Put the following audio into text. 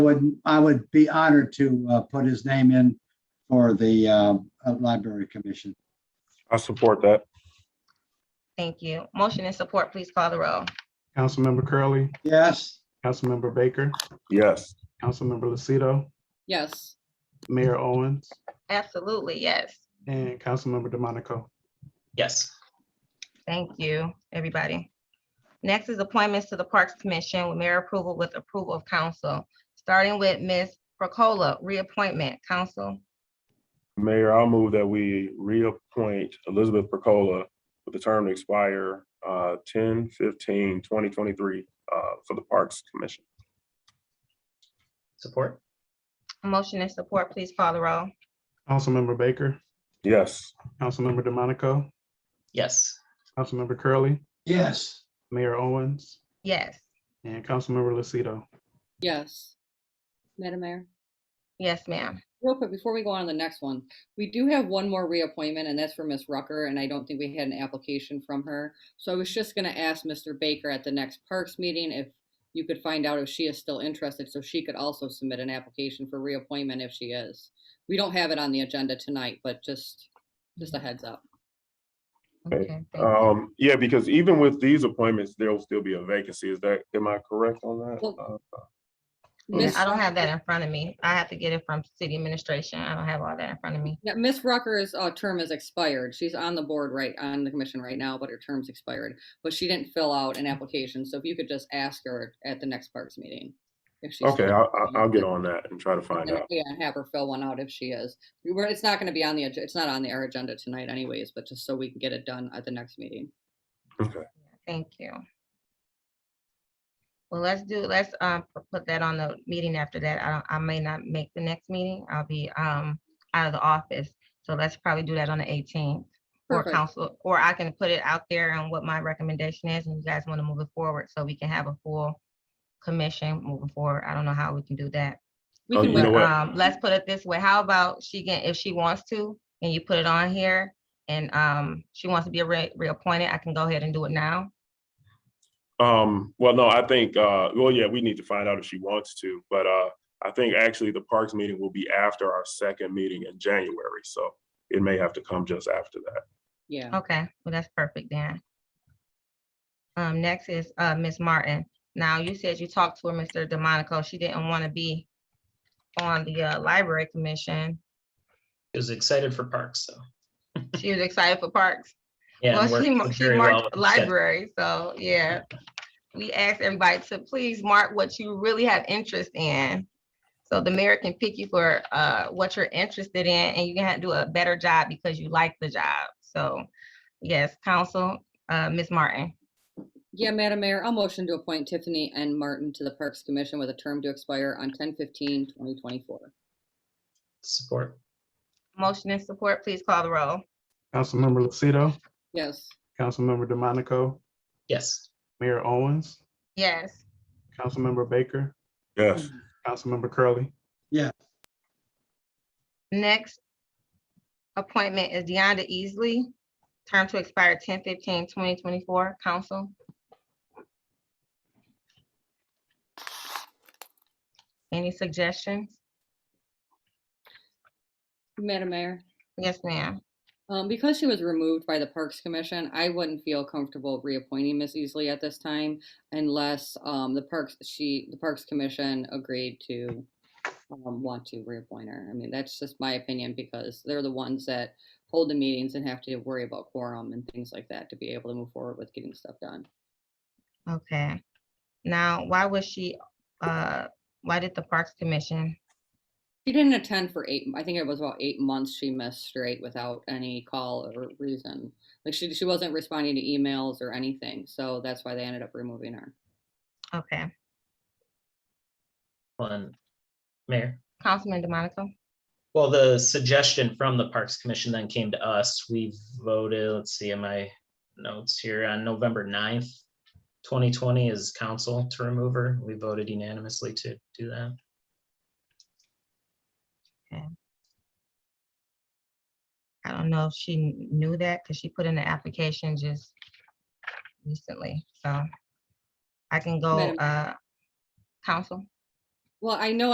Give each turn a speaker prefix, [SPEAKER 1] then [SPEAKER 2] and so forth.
[SPEAKER 1] would, I would be honored to uh, put his name in for the uh, uh, Library Commission.
[SPEAKER 2] I support that.
[SPEAKER 3] Thank you. Motion and support, please call the roll.
[SPEAKER 4] Councilmember Curley,
[SPEAKER 1] Yes,
[SPEAKER 4] Councilmember Baker,
[SPEAKER 2] Yes.
[SPEAKER 4] Councilmember Lucido,
[SPEAKER 5] yes,
[SPEAKER 4] Mayor Owens,
[SPEAKER 3] Absolutely, yes.
[SPEAKER 4] and Councilmember DeMonico.
[SPEAKER 6] Yes.
[SPEAKER 3] Thank you, everybody. Next is appointments to the Parks Commission with mayor approval with approval of council. Starting with Ms. Procola, reappointment, council.
[SPEAKER 2] Mayor, I'll move that we reappoint Elizabeth Percola with the term to expire uh 10, 15, 2023 uh for the Parks Commission.
[SPEAKER 6] Support?
[SPEAKER 3] Motion and support, please call the roll.
[SPEAKER 4] Councilmember Baker,
[SPEAKER 2] Yes.
[SPEAKER 4] Councilmember DeMonico,
[SPEAKER 6] Yes.
[SPEAKER 4] Councilmember Curley,
[SPEAKER 1] yes,
[SPEAKER 4] Mayor Owens,
[SPEAKER 3] Yes,
[SPEAKER 4] and Councilmember Lucido.
[SPEAKER 5] yes. Madam Mayor,
[SPEAKER 3] yes, ma'am.
[SPEAKER 5] real quick, before we go on to the next one, we do have one more reappointment and that's for Miss Rucker and I don't think we had an application from her. So I was just gonna ask Mr. Baker at the next Parks meeting if you could find out if she is still interested, so she could also submit an application for reappointment if she is. We don't have it on the agenda tonight, but just, just a heads up.
[SPEAKER 2] Okay.
[SPEAKER 3] Okay, thank you.
[SPEAKER 2] Um, yeah, because even with these appointments, there'll still be a vacancy. Is that, am I correct on that? Uh,
[SPEAKER 5] Miss
[SPEAKER 3] I don't have
[SPEAKER 5] Rucker-
[SPEAKER 3] that in front of me. I have to get it from city administration. I don't have all that in front of me.
[SPEAKER 5] Yeah, Miss Rucker's uh, term is expired. She's on the board right, on the commission right now, but her term's expired. But she didn't fill out an application, so if you could just ask her at the next parks meeting. if she's
[SPEAKER 2] Okay,
[SPEAKER 5] still-
[SPEAKER 2] I'll, I'll- I'll get on that and try to find
[SPEAKER 5] and,
[SPEAKER 2] out.
[SPEAKER 5] Yeah, have her fill one out if she is. We were- It's not gonna be on the, ag- it's not on the our agenda tonight anyways, but just so we can get it done at the next meeting.
[SPEAKER 3] Thank you. Well, let's do, let's um p- put that on the meeting after that. I don't, I may not make the next meeting. I'll be um out of the office. So let's probably do that on the eighteenth. Or
[SPEAKER 5] Perfect.
[SPEAKER 3] council, or I can put it out there on what my recommendation is and you guys want to move it forward so we can have a full commission moving forward. I don't know how we can do that.
[SPEAKER 5] We
[SPEAKER 2] Oh,
[SPEAKER 5] can
[SPEAKER 2] you know
[SPEAKER 5] wait.
[SPEAKER 2] what?
[SPEAKER 3] Um, let's put it this way. How about she can, if she wants to, and you put it on here and um she wants to be re- reappointed, I can go ahead and do it now.
[SPEAKER 2] Um, well, no, I think, uh, well, yeah, we need to find out if she wants to, but, uh, I think actually the Parks meeting will be after our second meeting in January, so it may have to come just after that.
[SPEAKER 5] Yeah,
[SPEAKER 3] Okay, well, that's perfect then. Um, next is, uh, Ms. Martin. Now, you said you talked to her, Mr. DeMonico. She didn't want to be on the, uh, library commission.
[SPEAKER 6] She was excited for parks, so.
[SPEAKER 3] She was excited for parks.
[SPEAKER 6] Yeah, and
[SPEAKER 3] Well, she,
[SPEAKER 6] worked
[SPEAKER 3] mar- she
[SPEAKER 6] very well
[SPEAKER 3] marked
[SPEAKER 6] with the schedule.
[SPEAKER 3] library, so, yeah. We asked everybody to please mark what you really have interest in. So the mayor can pick you for, uh, what you're interested in, and you can do a better job because you like the job. So, yes, council, uh, Ms. Martin.
[SPEAKER 5] yeah, Madam Mayor, I'll motion to appoint Tiffany and Martin to the Parks Commission with a term to expire on 2024.
[SPEAKER 6] Support?
[SPEAKER 3] Motion and support, please call the roll.
[SPEAKER 4] Councilmember Lucido,
[SPEAKER 5] Yes,
[SPEAKER 4] Councilmember DeMonico,
[SPEAKER 6] Yes.
[SPEAKER 4] Mayor Owens,
[SPEAKER 3] Yes,
[SPEAKER 4] Councilmember Baker,
[SPEAKER 2] Yes,
[SPEAKER 4] Councilmember Curley,
[SPEAKER 3] next appointment is Deonda Easley, term to expire 2024. council. Any suggestions?
[SPEAKER 5] Madam Mayor.
[SPEAKER 3] Yes, ma'am.
[SPEAKER 5] Um, because she was removed by the Parks Commission, I wouldn't feel comfortable reappointing Miss Easley at this time unless, um, the Parks, she, the Parks Commission agreed to um, want to reappoint her. I mean, that's just my opinion because they're the ones that hold the meetings and have to worry about quorum and things like that to be able to move forward with getting stuff done.
[SPEAKER 3] Okay. Now, why was she, uh, why did the Parks Commission?
[SPEAKER 5] She didn't attend for eight, I think it was about eight months she missed straight without any call or reason. Like she, she wasn't responding to emails or anything, so that's why they ended up removing her.
[SPEAKER 3] Okay,
[SPEAKER 6] One. Mayor?
[SPEAKER 3] Councilman DeMonico?
[SPEAKER 6] Well, the suggestion from the Parks Commission then came to us. We voted, let's see, in my notes here, on November 9th, twenty twenty is council to remove her. We voted unanimously to do that.
[SPEAKER 3] I don't know if she kn- knew that because she put in the application just recently, so I can go,
[SPEAKER 5] Madam-
[SPEAKER 3] uh, council.
[SPEAKER 5] Well, I know